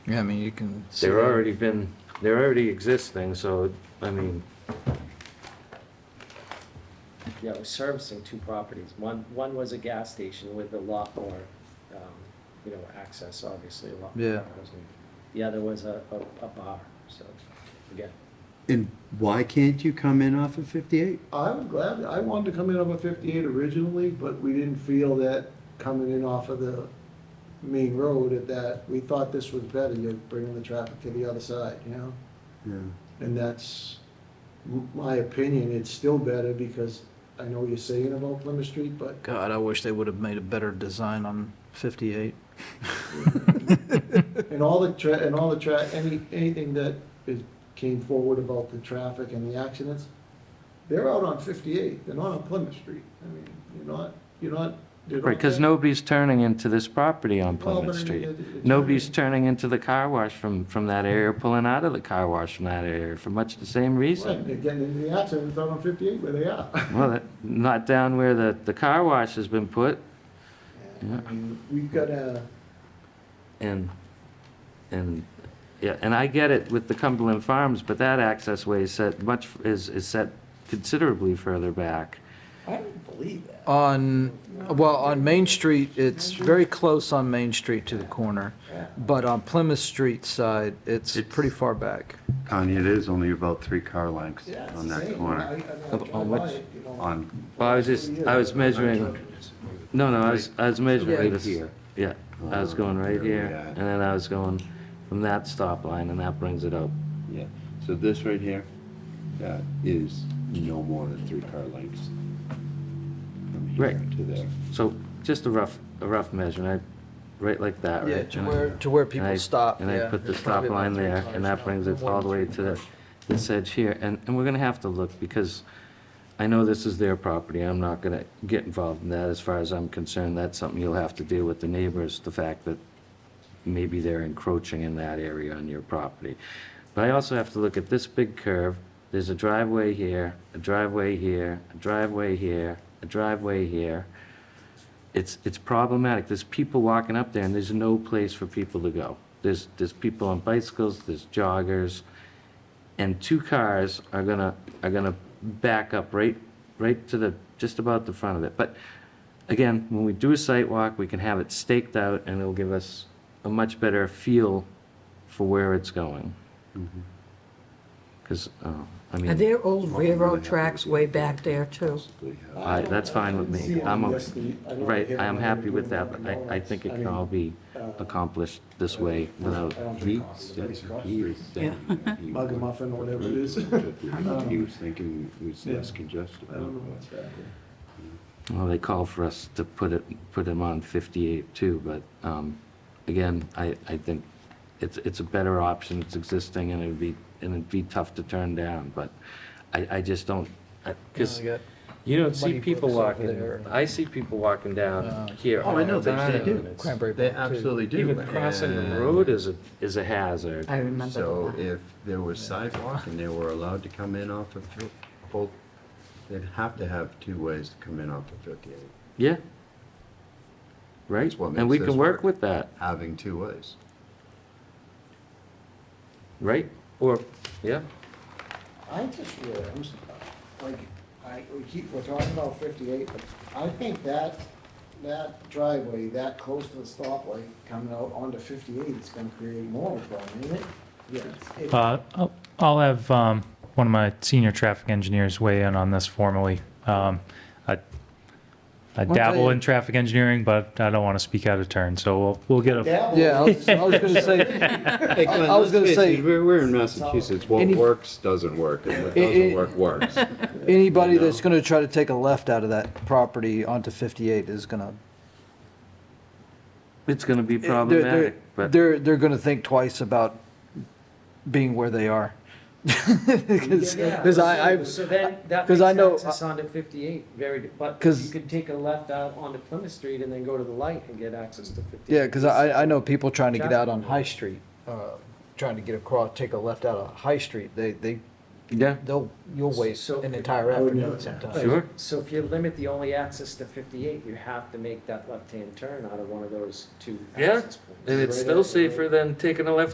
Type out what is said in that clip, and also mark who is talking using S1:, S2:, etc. S1: Yeah, I mean, you can. see
S2: They're
S1: that.
S2: already been, they're already existing, so, I mean,
S3: Yeah, it was servicing two properties. One, one was a gas station with a lot more, um, you know, access, obviously, a lot more
S1: Yeah.
S3: cars. and The other was a, a, a bar, so, again.
S4: And why can't you come in off of 58?
S5: I'm glad, I wanted to come in off of fifty-eight originally, but we didn't feel that coming in off of the main road at that, we thought this was better, you're bringing the traffic to the other side, you know?
S4: Yeah.
S5: And that's m- my opinion, it's still better because I know what you're saying about Plymouth Street, but
S1: God, I wish they would have made a better design on 58.
S5: And all the tra, and all the tra, any, anything that is, came forward about the traffic and the accidents, they're out on fifty-eight, they're not on Plymouth Street. I mean, you're not, you're not. they're not
S2: right, because
S5: there.
S2: nobody's turning into this property on
S5: Well, but
S2: Plymouth
S5: I mean,
S2: Street.
S5: it- it's-
S2: Nobody's turning into the car wash from, from that area, pulling out of the car wash from that area for much the same
S5: Right, they're
S2: reason.
S5: getting into the accidents out on fifty-eight where they are.
S2: Well, that- not down where the, the car wash has been put, Yeah.
S5: I mean, We've got a,
S2: and, and, yeah, and I get it with the Cumberland Farms, but that access way is set much, is, is set considerably further back.
S5: I don't believe that.
S1: On, well, on Main Street, it's very close on Main Street to the corner, but on Plymouth Street side, it's
S2: It's-
S1: pretty far back.
S6: Connie, it is only about three car lengths
S5: Yeah, it's
S6: on
S5: the
S6: that
S5: same. I- I
S6: corner.
S5: mean, I
S2: On
S5: drive
S2: which-
S5: by it, you know.
S6: On,
S2: Well, I was just, I was measuring, no, no, I was, I was measuring
S1: Right
S2: this.
S1: here. Oh,
S2: Yeah, I was going right
S6: There we
S2: here,
S6: are.
S2: and then I was going from that stop line, and that brings it up.
S6: yeah, so this right here, that is no more than three car lengths. From here
S2: Right.
S6: to there.
S2: So just a rough, a rough measurement, right like that, right?
S1: Yeah, to
S2: And I-
S1: where, to where
S2: and I-
S1: people stop,
S2: And I
S1: yeah.
S2: put the
S1: There's probably
S2: stop
S1: about
S2: line
S1: three
S2: there,
S1: cars
S2: and that
S1: now.
S2: brings it
S1: One,
S2: all the way
S1: two,
S2: to the- this edge here. And, and we're gonna have to look, because I know this is their property, I'm not gonna get involved in that. As far as I'm concerned, that's something you'll have to deal with the neighbors, the fact that maybe they're encroaching in that area on your property. But I also have to look at this big curve, there's a driveway here, a driveway here, a driveway here, a driveway here. It's, it's problematic, there's people walking up there and there's no place for people to go. There's, there's people on bicycles, there's joggers, and two cars are gonna, are gonna back up right, right to the, just about the front of it. But again, when we do a site walk, we can have it staked out and it'll give us a much better feel for where it's going.
S5: Mm-hmm.
S2: Because, I
S7: Are
S2: mean,
S7: there old railroad tracks way back there too?
S6: Basically, yeah.
S2: I- that's fine with
S5: I didn't
S2: me.
S5: see
S2: I'm,
S5: any
S2: o-
S5: yesterday. I don't
S2: right,
S5: hear
S2: I am
S5: them
S2: happy with
S5: doing
S2: that,
S5: that.
S2: but I, I think it
S5: I
S2: can
S5: mean,
S2: all be
S5: uh,
S2: accomplished this way without,
S5: I don't
S6: He
S5: drink coffee, but
S6: said,
S5: it's crushed.
S6: he was saying. that he
S5: Mug and
S6: would-
S5: muffin or whatever it is.
S6: He was thinking it was
S5: Yeah.
S6: less congested.
S5: I don't know what's back there.
S2: well, they call for us to put it, put him on 58 too, but, um, again, I, I think it's, it's a better option, it's existing, and it'd be, and it'd be tough to turn down, but I, I just don't, because
S1: You know,
S2: you don't see
S1: Muddy
S2: people
S1: brooks over
S2: walking,
S1: there.
S2: I see people walking down
S1: Uh,
S2: here.
S1: Oh, I know, they-
S2: all the
S1: they
S2: time,
S1: do.
S2: and it's-
S1: Cranberry
S8: They
S1: Bog, too.
S8: absolutely do.
S2: Even crossing the road is a, is a hazard.
S7: I remember
S8: So
S7: that.
S8: if there was sidewalk and they were allowed to come in off of, fif- both, they'd have to have two ways to come in off of 58.
S2: Yeah. Right,
S8: That's what
S2: and we
S8: makes
S2: can
S8: this
S2: work
S8: work.
S2: with that,
S8: Having two ways.
S2: right? Or, yeah,
S5: I just really, I'm, s- like, I, we keep, we're talking about fifty-eight, but I think that, that driveway, that close to the stoplight coming out onto fifty-eight, it's gonna create more of a problem, isn't it? Yes.
S9: Uh, I'll- I'll have um, one of my senior traffic engineers weigh in on this formally. Um, I I
S1: Well,
S9: dabble
S1: they-
S9: in traffic engineering, but I don't want to speak out of turn, so we'll we'll get a,
S1: Yeah, I was, I was gonna say,
S6: Hey,
S1: I- I was gonna say-
S6: We're, we're in Massachusetts, what
S1: Any-
S6: works doesn't work, and what
S1: It-
S6: doesn't
S1: it-
S6: work works.
S1: anybody that's gonna try to take a left out of that property onto 58 is gonna
S2: it's gonna be
S1: They're- they're-
S2: problematic, but.
S1: They're, they're gonna think twice about being where they are. Because, because I, I,
S3: So then, that
S1: 'cause
S3: makes
S1: I know- uh,
S3: access onto fifty-eight very, but you
S1: 'Cause-
S3: could take a left out onto Plymouth Street and then go to the light and get access to fifty-eight.
S1: yeah, because I, I know people trying to get out on High Street, uh, trying to get across, take a left out of High Street, they, they,
S2: Yeah.
S1: they'll, you'll waste
S3: So-
S1: an entire
S5: I would know
S1: afternoon
S5: that.
S1: sometimes.
S3: Right.
S2: Sure.
S3: So if you limit the only access to fifty-eight, you have to make that left-hand turn out of one of those two
S2: Yeah,
S3: access points.
S2: And it's still safer than taking a left